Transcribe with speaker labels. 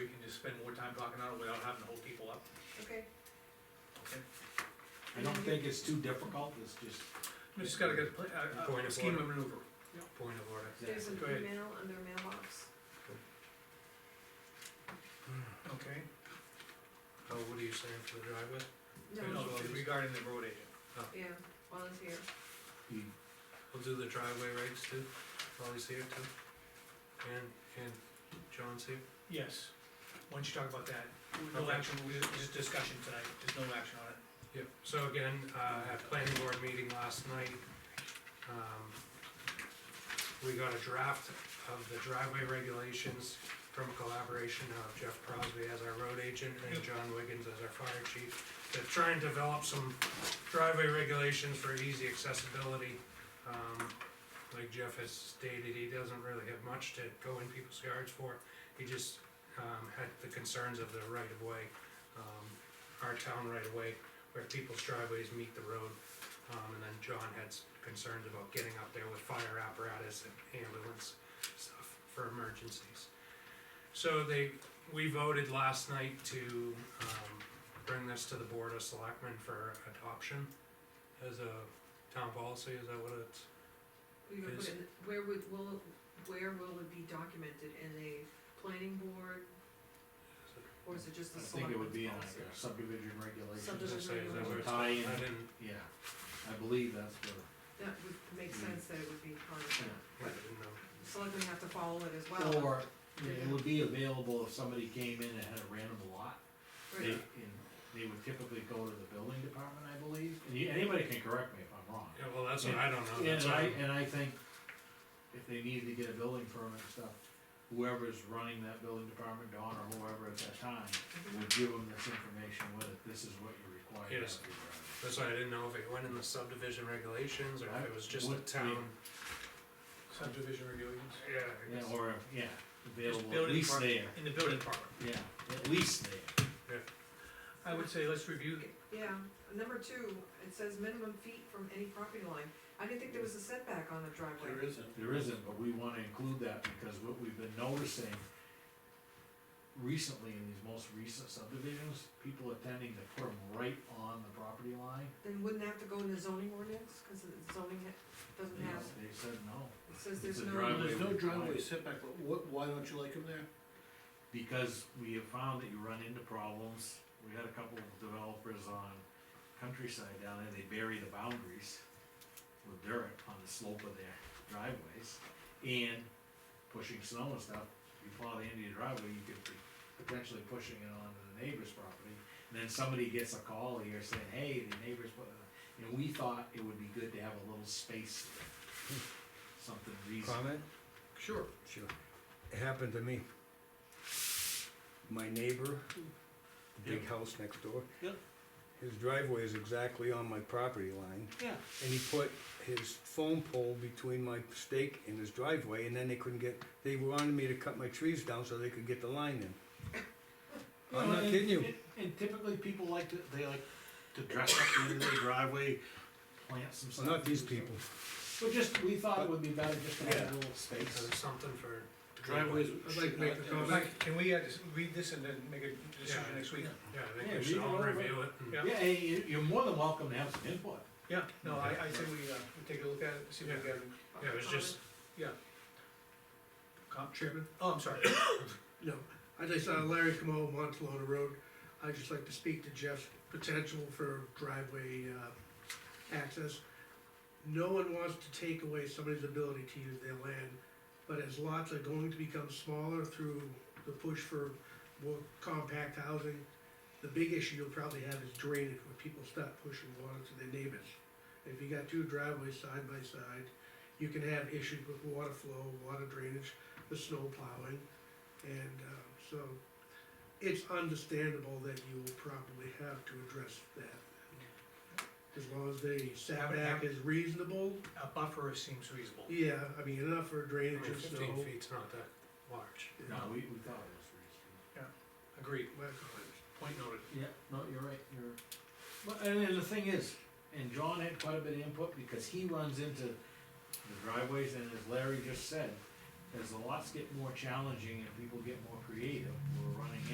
Speaker 1: time talking on it without having to hold people up,
Speaker 2: okay,
Speaker 1: okay?
Speaker 3: I don't think it's too difficult, it's just.
Speaker 1: We just gotta get a, pla- a- a, a
Speaker 4: Point of
Speaker 1: scheme
Speaker 4: order.
Speaker 1: of maneuver.
Speaker 4: Point of order.
Speaker 2: there's an
Speaker 1: Go ahead.
Speaker 2: email under mailbox.
Speaker 1: Okay.
Speaker 4: Oh, what are you saying for the driveway?
Speaker 2: No,
Speaker 1: You know, Regarding the road agent.
Speaker 2: yeah, while it's here,
Speaker 4: We'll do the driveway regs too, while he's here too. And, and John's here.
Speaker 1: Yes. Why don't you talk about that? No
Speaker 4: Okay.
Speaker 1: action, we- just discussion tonight, there's no action on it.
Speaker 4: Yep, so again, uh, at planning board meeting last night, um, we got a draft of the driveway regulations from a collaboration of Jeff Crosby as our road agent and
Speaker 1: Yep.
Speaker 4: John Wiggins as our fire chief. To try and develop some driveway regulations for easy accessibility. Um, like Jeff has stated, he doesn't really have much to go in people's yards for. He just, um, had the concerns of the right of way, um, our town right of way where people's driveways meet the road. Um, and then John had s- concerns about getting up there with fire apparatus and ambulance stuff for emergencies. So they, we voted last night to, um, bring this to the Board of Selectmen for adoption as a town policy, is that what it's?
Speaker 2: we would put in, where would, will, where will it be documented, in a planning board? Or is it just
Speaker 3: I
Speaker 2: the
Speaker 3: think it
Speaker 2: selectmen's
Speaker 3: would be in like
Speaker 2: policy?
Speaker 3: a subdivision regulations,
Speaker 2: Subdivision.
Speaker 4: Does it say- is that where it's-
Speaker 3: Tie in.
Speaker 4: I didn't,
Speaker 3: yeah, I believe that's
Speaker 2: That would make
Speaker 4: Hmm.
Speaker 3: Mm.
Speaker 2: sense that it would be part of that,
Speaker 4: I didn't know.
Speaker 2: The selectmen have to follow it as
Speaker 3: what,
Speaker 2: well.
Speaker 3: or I mean, it would be available if somebody came in and had a random lot.
Speaker 2: Right.
Speaker 3: They, and they would typically go to the building department, I believe, and you, anybody can correct me if I'm wrong.
Speaker 4: Yeah, well, that's what I don't know, that's
Speaker 3: And
Speaker 4: what
Speaker 3: I,
Speaker 4: I,
Speaker 3: and I think if they needed to get a building permit and stuff, whoever's running that building department, Don or whoever at that time, would give them this information with it, this is what you're required
Speaker 4: Yes.
Speaker 3: to do.
Speaker 4: that's why I didn't know if it went in the subdivision regulations or if it was just a
Speaker 3: Would be-
Speaker 4: town.
Speaker 1: Subdivision regulations.
Speaker 4: Yeah. I guess.
Speaker 3: Yeah, or, yeah,
Speaker 1: Just
Speaker 3: available, at
Speaker 1: building
Speaker 3: least there,
Speaker 1: department, in the building department.
Speaker 3: yeah, at least there.
Speaker 1: I would say let's review,
Speaker 2: Yeah, number two, it says minimum feet from any property line, I didn't think there was a setback on a driveway.
Speaker 5: isn't.
Speaker 3: There isn't, but we wanna include that because what we've been noticing recently in these most recent subdivisions, people are tending to put them right on the property line.
Speaker 2: Then wouldn't that have to go in the zoning ordinance, cause the zoning ha- doesn't have,
Speaker 3: They said no.
Speaker 2: it says
Speaker 3: It's
Speaker 2: there's
Speaker 3: a
Speaker 2: no.
Speaker 3: driveway.
Speaker 5: There's no driveway setback, but what, why don't you like them there?
Speaker 3: because we have found that you run into problems. We had a couple of developers on countryside down there, they bury the boundaries with dirt on the slope of their driveways. And pushing snow and stuff, you plow the end of your driveway, you could be potentially pushing it onto the neighbor's property. And then somebody gets a call here saying, hey, the neighbor's, put a-" and we thought it would be good to have a little space there. Something reasonable.
Speaker 6: Comment?
Speaker 1: sure,
Speaker 6: Sure. It happened to me. My neighbor, the big house next door.
Speaker 3: Yep.
Speaker 6: His driveway is exactly on my property line,
Speaker 3: Yeah.
Speaker 6: and he put his phone pole between my stake and his driveway, and then they couldn't get, they wanted me to cut my trees down so they could get the line in. I'm
Speaker 3: No,
Speaker 6: not
Speaker 3: and-
Speaker 6: kidding you.
Speaker 3: and- And typically, people like to, they like to dress up the end of their driveway, plant some stuff.
Speaker 6: Not these people.
Speaker 3: But just, we thought it would be better just to have a little
Speaker 4: So
Speaker 3: space.
Speaker 4: there's something for.
Speaker 5: Driveways
Speaker 1: I'd like
Speaker 5: should
Speaker 1: to make
Speaker 5: not.
Speaker 1: the comment. Can we, uh, just read this and then make a decision
Speaker 4: Yeah.
Speaker 1: next week?
Speaker 4: Yeah, I
Speaker 3: Yeah,
Speaker 4: think we
Speaker 3: leave
Speaker 4: should
Speaker 3: it
Speaker 4: all
Speaker 3: over.
Speaker 4: review it and
Speaker 1: Yeah.
Speaker 3: Yeah, hey, you, you're more than welcome to have some input.
Speaker 1: Yeah, no, I, I say we, uh, we take a look at it, see if we
Speaker 4: Yeah.
Speaker 1: can,
Speaker 4: Yeah, it was just-
Speaker 1: comp,
Speaker 5: Chairman?
Speaker 1: oh, I'm sorry.
Speaker 5: No, I just, uh, Larry Camo, Montalona Road, I'd just like to speak to Jeff's potential for driveway, uh, access. No one wants to take away somebody's ability to use their land, but as lots are going to become smaller through the push for more compact housing, the big issue you'll probably have is drainage, when people start pushing water to their neighbors. If you got two driveways side by side, you can have issues with water flow, water drainage, the snow plowing. And uh, so it's understandable that you will probably have to address that. As long as the setback is reasonable,
Speaker 1: A buffer seems reasonable.
Speaker 5: yeah, I mean, enough for
Speaker 4: I
Speaker 5: drainage
Speaker 4: mean,
Speaker 5: and
Speaker 4: fifteen
Speaker 5: snow.
Speaker 4: feet's not that large.
Speaker 5: yeah,
Speaker 3: No, we, we thought it was
Speaker 1: Agreed,
Speaker 5: my comments.
Speaker 1: point noted.
Speaker 3: reasonable. Yeah, no, you're right, you're. But, and then the thing is, and John had quite a bit of input because he runs into the driveways and as Larry just said, as the lots get more challenging and people get more creative, we're running